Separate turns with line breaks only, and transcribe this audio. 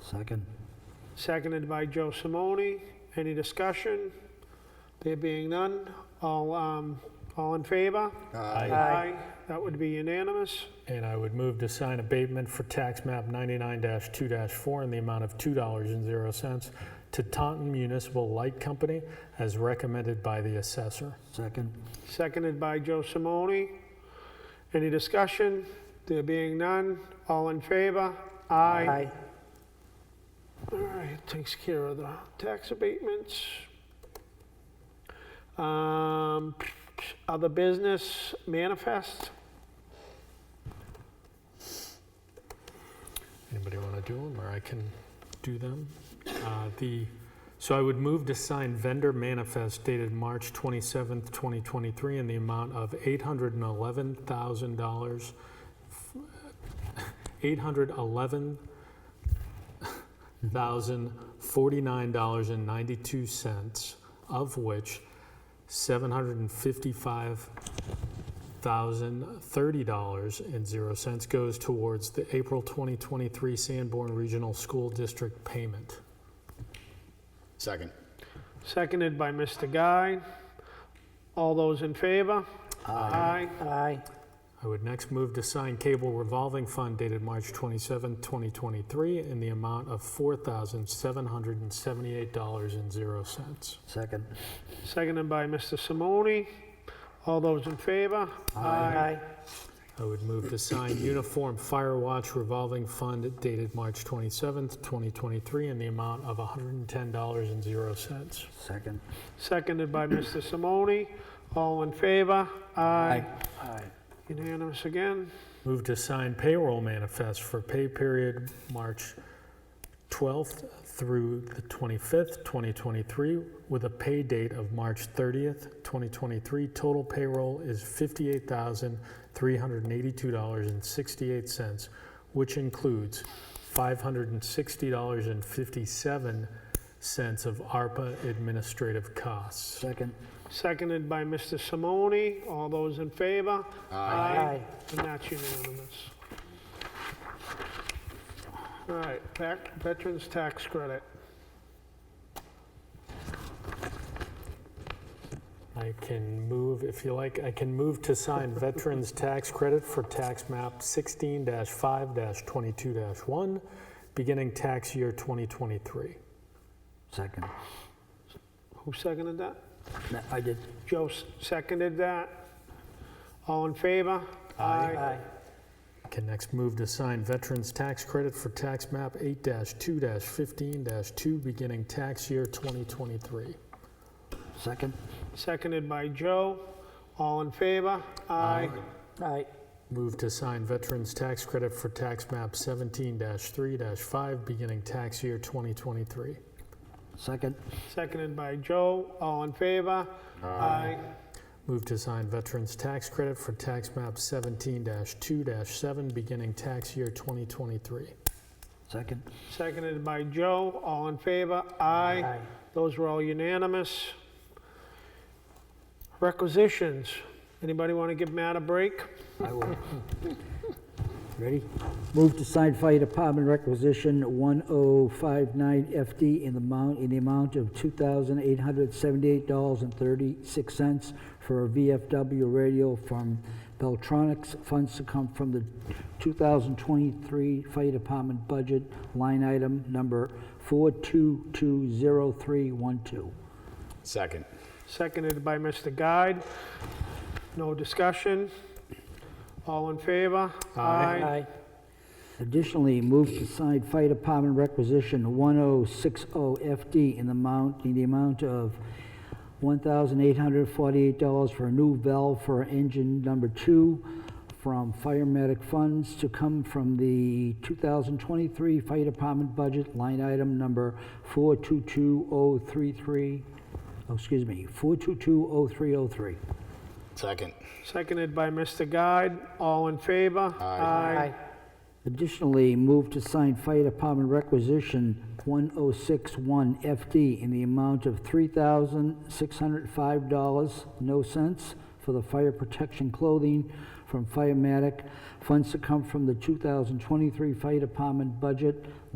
Second.
Seconded by Joe Simone. Any discussion? There being none, all, um, all in favor? Aye. That would be unanimous.
And I would move to sign abatement for tax map 99-2-4 in the amount of $2.00 to Taunton Municipal Light Company as recommended by the assessor.
Second.
Seconded by Joe Simone. Any discussion? There being none, all in favor? Aye. All right, takes care of the tax abatements. Um, Other business manifest?
Anybody want to do them, or I can do them? Uh, The, so I would move to sign vendor manifest dated March 27th, 2023, in the amount of $811,000, $811,049.92, of which $755 $1,030.00 goes towards the April 2023 Sanborn Regional School District payment.
Second.
Seconded by Mr. Guy. All those in favor? Aye.
Aye.
I would next move to sign cable revolving fund dated March 27, 2023, in the amount of $4,778.00.
Second.
Seconded by Mr. Simone. All those in favor? Aye.
I would move to sign uniform fire watch revolving fund dated March 27, 2023, in the amount of $110.00.
Second.
Seconded by Mr. Simone. All in favor? Aye. Unanimous again.
Move to sign payroll manifest for pay period March 12th through the 25th, 2023, with a pay date of March 30th, 2023. Total payroll is $58,382.68, which includes $560.57 of ARPA administrative costs.
Second.
Seconded by Mr. Simone. All those in favor?
Aye.
And that's unanimous. All right, back- Veterans Tax Credit.
I can move, if you like, I can move to sign Veterans Tax Credit for Tax Map 16-5-22-1, beginning tax year 2023.
Second.
Who seconded that?
No, I did.
Joe s- seconded that. All in favor? Aye.
I Can next move to sign Veterans Tax Credit for Tax Map 8-2-15-2, beginning tax year 2023.
Second.
Seconded by Joe. All in favor? Aye.
Aye.
Move to sign Veterans Tax Credit for Tax Map 17-3-5, beginning tax year 2023.
Second.
Seconded by Joe. All in favor? Aye.
Move to sign Veterans Tax Credit for Tax Map 17-2-7, beginning tax year 2023.
Second.
Seconded by Joe. All in favor? Aye. Those were all unanimous. Requisitions. Anybody want to give Matt a break?
I will. Ready? Move to sign Fire Department requisition 1059FD in the amount, in the amount of $2,878.36 for a VFW radio from Beltronics. Funds to come from the 2023 Fire Department budget, line item number 4220312.
Second.
Seconded by Mr. Guide. No discussion. All in favor?
Aye.
Additionally, move to sign Fire Department requisition 1060FD in the amount, in the amount of $1,848 for a new valve for engine number two from fire medic funds to come from the 2023 Fire Department budget, line item number 422033, oh, excuse me, 4220303.
Second.
Seconded by Mr. Guide. All in favor? Aye.
Additionally, move to sign Fire Department requisition 1061FD in the amount of $3,605, no cents, for the fire protection clothing from Firematic. Funds to come from the 2023 Fire Department budget,